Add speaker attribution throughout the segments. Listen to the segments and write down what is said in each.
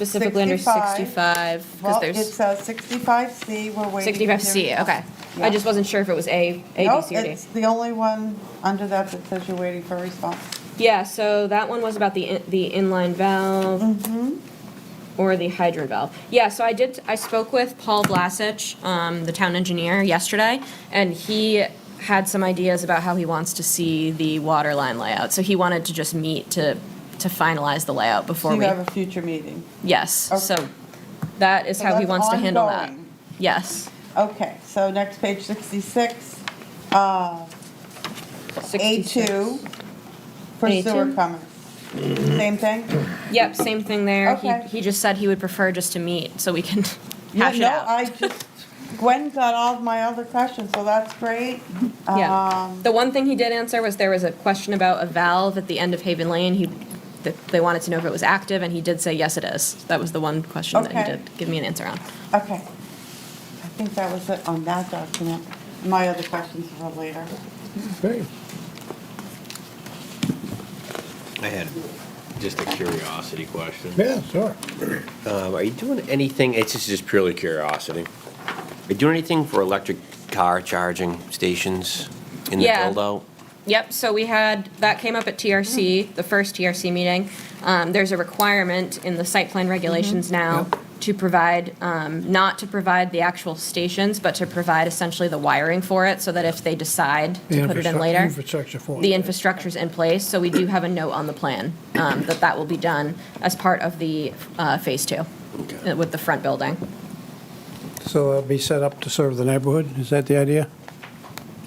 Speaker 1: specifically under
Speaker 2: 65.
Speaker 1: 65, because
Speaker 2: Well, it's
Speaker 1: there's
Speaker 2: uh, 65C, we're waiting. to hear
Speaker 1: 65C,
Speaker 2: back.
Speaker 1: okay.
Speaker 2: Yeah.
Speaker 1: I just wasn't sure if it was A, A, B,
Speaker 2: Nope,
Speaker 1: C, or D.
Speaker 2: it's the only one under that that says you're waiting for a response.
Speaker 1: Yeah, so that one was about the, in- the inline valve
Speaker 2: Mm-hmm.
Speaker 1: or the hydrant valve. Yeah, so I did, I spoke with Paul Blasich, um, the town engineer, yesterday, and he had some ideas about how he wants to see the water line layout. So he wanted to just meet to, to finalize the layout
Speaker 2: So
Speaker 1: before
Speaker 2: you
Speaker 1: we.
Speaker 2: have a future meeting.
Speaker 1: Yes,
Speaker 2: Okay.
Speaker 1: so that is
Speaker 2: So
Speaker 1: how he
Speaker 2: that's
Speaker 1: wants to handle that.
Speaker 2: ongoing.
Speaker 1: Yes.
Speaker 2: Okay, so next page, 66, uh,
Speaker 1: 66.
Speaker 2: A2, for
Speaker 1: A2?
Speaker 2: sewer comments.
Speaker 1: Mm-hmm.
Speaker 2: Same thing?
Speaker 1: Yep, same thing there.
Speaker 2: Okay.
Speaker 1: He, he just said he would prefer just to meet so we can
Speaker 2: Yeah,
Speaker 1: hash it out.
Speaker 2: No, I just, Gwen got all my other questions, so that's great.
Speaker 1: yeah.
Speaker 2: Um,
Speaker 1: The one thing he did answer was there was a question about a valve at the end of Haven Lane. He, that they wanted to know if it was active, and he did say yes, it is. That was the one question that
Speaker 2: Okay.
Speaker 1: he did give me an answer on.
Speaker 2: Okay. I think that was it on that document. My other questions are later.
Speaker 3: Okay.
Speaker 4: I had just a curiosity question.
Speaker 3: Yeah, sure.
Speaker 4: Um, are you doing anything? It's just, just purely curiosity. Are you doing anything for electric car charging stations in the
Speaker 1: Yeah.
Speaker 4: build out?
Speaker 1: Yep, so we had, that came up at
Speaker 2: Mm-hmm.
Speaker 1: TRC, the first TRC meeting. Um, there's a requirement in the site plan regulations
Speaker 2: Mm-hmm.
Speaker 1: now to provide, um, not to provide the actual stations, but to provide essentially the wiring for it, so that if they decide to put it in later.
Speaker 3: Infrastructure for.
Speaker 1: The
Speaker 3: it.
Speaker 1: infrastructure's in place, so we do have a note on the plan um, that that will be done as part of the uh, Phase Two
Speaker 4: Okay.
Speaker 1: uh, with the front building.
Speaker 3: So it'll be set up to serve the neighborhood, is that the idea?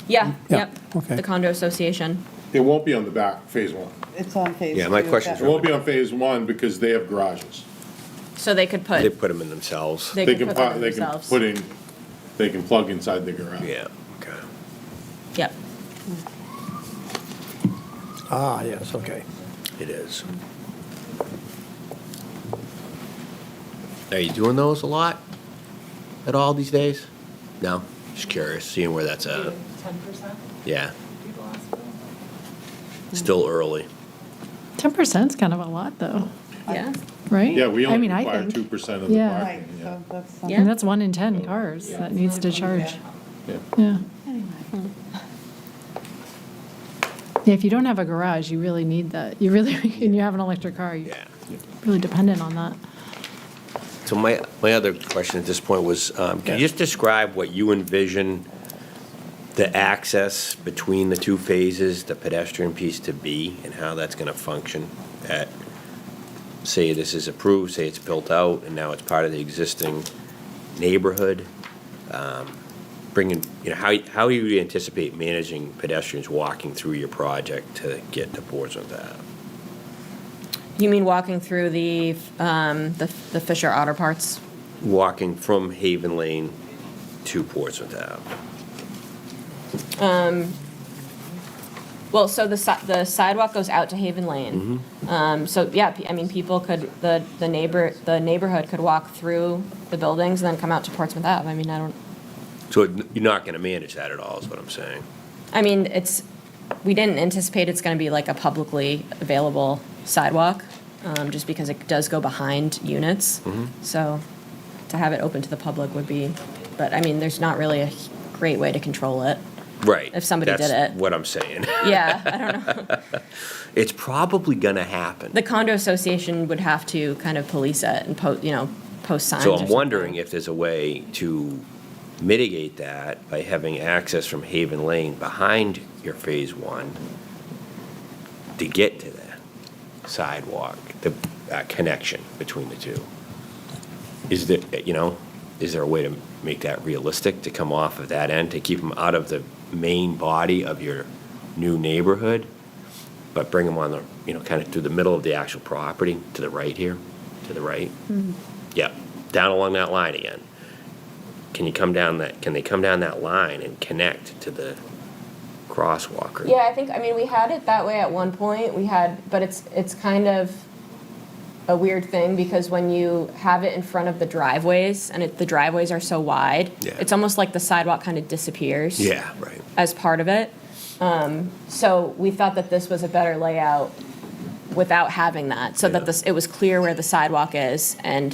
Speaker 1: Yeah,
Speaker 3: Yeah,
Speaker 1: yep,
Speaker 3: okay.
Speaker 1: the condo association.
Speaker 5: It won't be on the back, phase one.
Speaker 2: It's on phase two.
Speaker 4: Yeah, my
Speaker 2: is
Speaker 4: question's
Speaker 5: It
Speaker 2: that-
Speaker 5: won't be on phase one because they have garages.
Speaker 1: So they could
Speaker 4: They
Speaker 1: put,
Speaker 4: put them in themselves.
Speaker 1: they
Speaker 5: They
Speaker 1: could
Speaker 5: can,
Speaker 1: put
Speaker 5: pu-
Speaker 1: that
Speaker 5: they can
Speaker 1: themselves.
Speaker 5: put in, they can plug inside the garage.
Speaker 4: Yeah, okay.
Speaker 1: Yep,
Speaker 3: Ah, yes, okay.
Speaker 4: It is. Are you doing those a lot at all these days? No? Just curious, seeing where that's at.
Speaker 6: Ten percent
Speaker 4: Yeah,
Speaker 6: people ask for
Speaker 4: still early.
Speaker 6: Ten percent's kind of a lot, though,
Speaker 1: yeah,
Speaker 6: right?
Speaker 5: Yeah, we
Speaker 6: I
Speaker 5: only
Speaker 6: mean, I
Speaker 5: require
Speaker 6: think.
Speaker 5: two percent of the
Speaker 6: Yeah.
Speaker 2: Right,
Speaker 5: parking, yeah.
Speaker 2: so that's
Speaker 1: Yeah.
Speaker 6: And
Speaker 2: something.
Speaker 6: that's one in ten cars that needs to charge.
Speaker 5: Yeah.
Speaker 6: Yeah. Yeah, if you don't have a garage, you really need that. You really, and you have an electric car, you're
Speaker 4: Yeah.
Speaker 6: really dependent on that.
Speaker 4: So my, my other question at this point was, um, can you just describe what you envision the access between the two phases, the pedestrian piece to be, and how that's going to function at, say this is approved, say it's built out, and now it's part of the existing neighborhood? Um, Bringing, you know, how, how do you anticipate managing pedestrians walking through your project to get to Portsmouth Ave?
Speaker 1: you mean walking through the, um, the the Fisher Otter Parts?
Speaker 4: Walking from Haven Lane to Portsmouth Ave?
Speaker 1: Well, so the si- the sidewalk goes out to Haven Lane.
Speaker 5: Mm-hmm.
Speaker 1: Um, So, yeah, pe- I mean, people could, the the neighbor, the neighborhood could walk through the buildings and then come out to Portsmouth Ave. I mean, I don't,
Speaker 4: So it- you're not going to manage that at all, is what I'm saying.
Speaker 1: I mean, it's, we didn't anticipate it's going to be like a publicly available sidewalk, um, just because it does go behind units.
Speaker 4: Mm-hmm.
Speaker 1: So to have it open to the public would be, but I mean, there's not really a great way to control it.
Speaker 4: Right.
Speaker 1: If somebody did
Speaker 4: That's
Speaker 1: it.
Speaker 4: what I'm saying.
Speaker 1: Yeah, I don't know.
Speaker 4: It's probably going to happen.
Speaker 1: The condo association would have to kind of police it and po, you know, post signs.
Speaker 4: So
Speaker 1: or
Speaker 4: I'm
Speaker 1: something.
Speaker 4: wondering if there's a way to mitigate that by having access from Haven Lane behind your Phase One to get to the sidewalk, the uh, connection between the two. Is there, you know, is there a way to make that realistic, to come off of that end, to keep them out of the main body of your new neighborhood, but bring them on the, you know, kind of through the middle of the actual property, to the right here, to the right? Yep, down along that line again. Can you come down that, can they come down that line and connect to the crosswalk? or-
Speaker 1: Yeah, I think, I mean, we had it that way at one point, we had, but it's, it's kind of a weird thing, because when you have it in front of the driveways, and it, the driveways are so wide,
Speaker 4: Yeah.
Speaker 1: it's almost like the sidewalk kind of disappears.
Speaker 4: Yeah, right.
Speaker 1: As part of it, um, so we thought that this was a better layout without having that, so that this, it was clear where the sidewalk is and